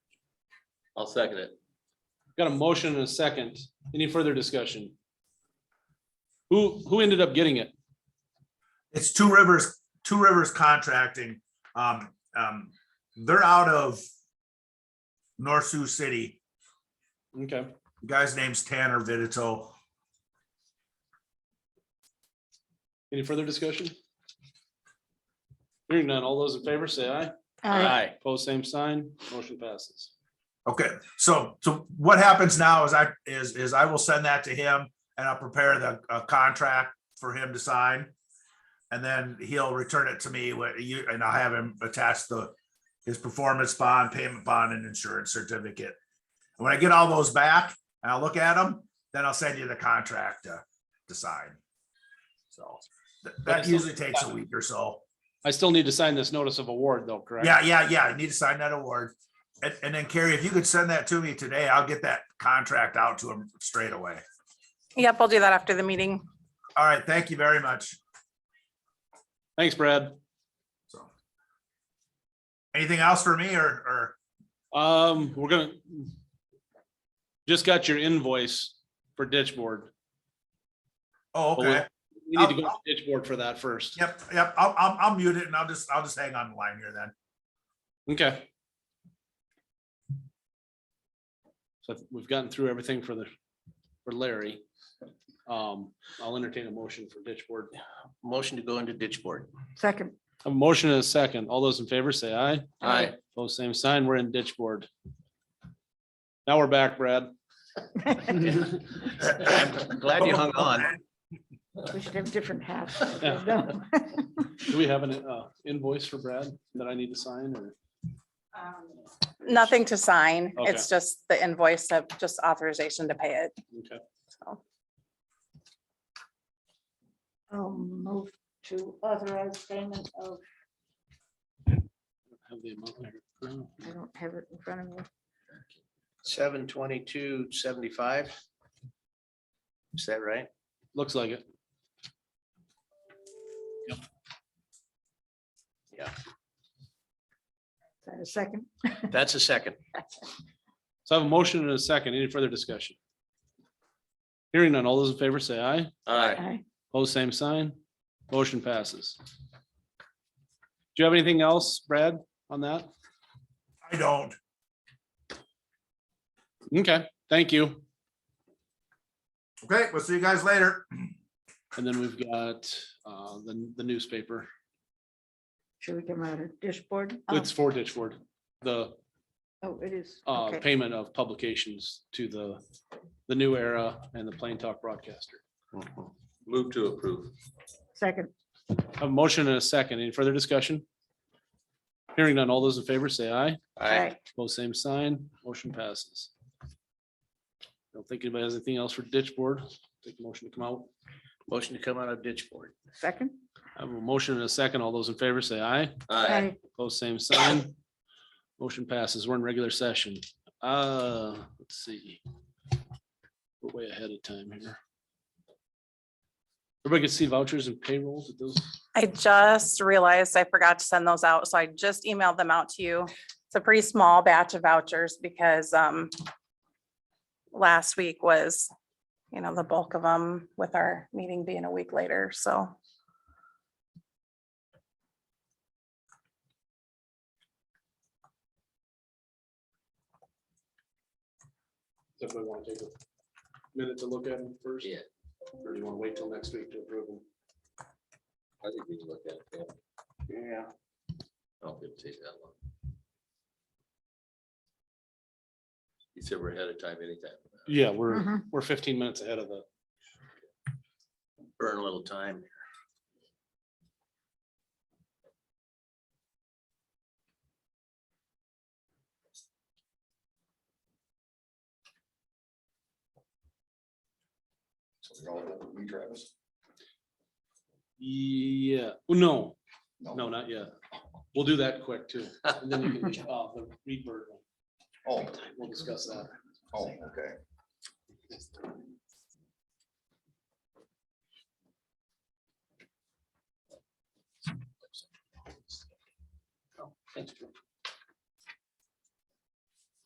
I'll second it. Got a motion and a second. Any further discussion? Who, who ended up getting it? It's Two Rivers, Two Rivers Contracting. Um, um, they're out of North Sioux City. Okay, The Guy's name's Tanner Vidito. any further discussion? Hearing none, all those in favor say aye. Aye. Pose same sign, motion passes. Okay, so, so what happens now is I, is, is I will send that to him and I'll prepare the, uh, contract for him to sign. And then he'll return it to me, with you, and I'll have him attach the, his performance bond, payment bond and insurance certificate. And When I get all those back and I'll look at them, then I'll send you the contract to, to sign. So th- that usually takes a week or so. I still need to sign this notice of award though, correct? Yeah, yeah, yeah. I need to sign that award. And, and then Carrie, if you could send that to me today, I'll get that contract out to him straight away. Yep, I'll do that after the meeting. All right, thank you very much. Thanks, Brad. So. Anything else for me or, or, Um, we're gonna. Just got your invoice for ditch board. oh, Well, okay. We need to go to ditch board for that first. Yep, yep. I'll, I'll, I'll mute it and I'll just, I'll just hang on the line here then. Okay. So we've gotten through everything for the, for Larry. Um, I'll entertain a motion for ditch board. Motion to go into ditch board. Second. A motion and a second. All those in favor say aye. Aye. Both same sign. We're in ditch board. Now we're back, Brad. I'm Glad you hung on. We should have different hats. Yeah. Do we have an uh, invoice for Brad that I need to sign or? Nothing to sign. Okay. It's just the invoice of just authorization to pay it. Okay. I'll move to authorize payment of, Have the amount there. I don't have it in front of me. Seven twenty-two seventy-five. Is that right? Looks like it. Is that a second? That's a second. So I have a motion and a second. Any further discussion? Hearing none. All those in favor say aye. Aye. Aye. Pose same sign. Motion passes. Do you have anything else, Brad, on that? I don't. Okay, thank you. Okay, we'll see you guys later. And then we've got uh, the the newspaper. Should we come out of dishboard? It's for Ditchwood, the Oh, it is. uh, Okay. payment of publications to the the New Era and the Plain Talk Broadcaster. Move to approve. Second. A motion and a second. Any further discussion? Hearing none. All those in favor say aye. Aye. Both same sign, motion passes. Don't think anybody has anything else for ditch board. Take a motion to come out. Motion to come out of ditch board. Second. I have a motion and a second. All those in favor say aye. Aye. Both same sign. Motion passes. We're in regular session. Uh, let's see. We're way ahead of time here. Everybody can see vouchers and payrolls at those. I just realized I forgot to send those out, so I just emailed them out to you. It's a pretty small batch of vouchers because um last week was, you know, the bulk of them with our meeting being a week later, so. Definitely want to take a minute to look at them first. Yeah. Or do you want to wait till next week to approve them? I think we can look at it. yeah. Yeah. I don't think it'll take that long. You said we're ahead of time anytime. Yeah, we're, Mhm. we're fifteen minutes ahead of the Burn a little time. Yeah, well, no, no, not yet. We'll do that quick too. And then you can, uh, the read bird. Oh, We'll discuss that. oh, okay. Thanks, Joe.